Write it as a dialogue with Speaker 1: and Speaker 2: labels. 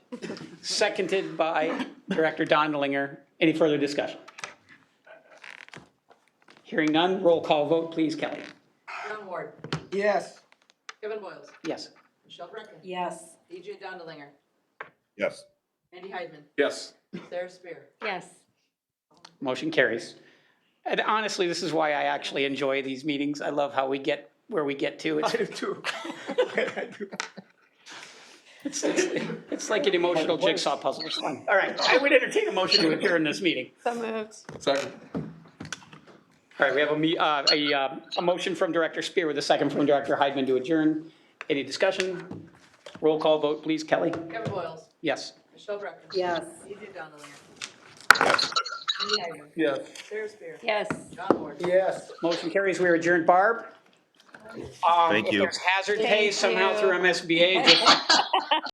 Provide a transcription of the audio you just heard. Speaker 1: seconded by Director Dondelinger. Any further discussion? Hearing none, roll call vote, please, Kelly.
Speaker 2: John Ward,
Speaker 3: Yes.
Speaker 2: Kevin Boils,
Speaker 1: Yes.
Speaker 2: Michelle Brecken,
Speaker 4: Yes.
Speaker 2: EJ Dondelinger,
Speaker 5: Yes.
Speaker 2: Andy Heidman,
Speaker 6: Yes.
Speaker 2: Sarah Spear.
Speaker 4: Yes.
Speaker 1: Motion carries. And honestly, this is why I actually enjoy these meetings. I love how we get where we get to. It's,
Speaker 3: do too. I do.
Speaker 1: it's, it's, it's like an emotional jigsaw puzzle. It's fun. All right, I would entertain a motion to adjourn this meeting.
Speaker 4: So moved.
Speaker 6: Second.
Speaker 1: All right, we have a, me- uh, a, uh, a motion from Director Spear with a second from Director Heidman to adjourn. Any discussion? Roll call vote, please, Kelly.
Speaker 2: Kevin Boils,
Speaker 1: Yes.
Speaker 2: Michelle Brecken.
Speaker 4: Yes.
Speaker 2: EJ Dondelinger. Andy Heidman,
Speaker 6: Yes.
Speaker 2: Sarah Spear.
Speaker 4: Yes.
Speaker 2: John Ward.
Speaker 3: Yes.
Speaker 1: Motion carries, we are adjourned. Barb? um,
Speaker 5: Thank you.
Speaker 1: If there's hazard pay
Speaker 4: Thank
Speaker 1: somehow
Speaker 4: you.
Speaker 1: through MSBA, just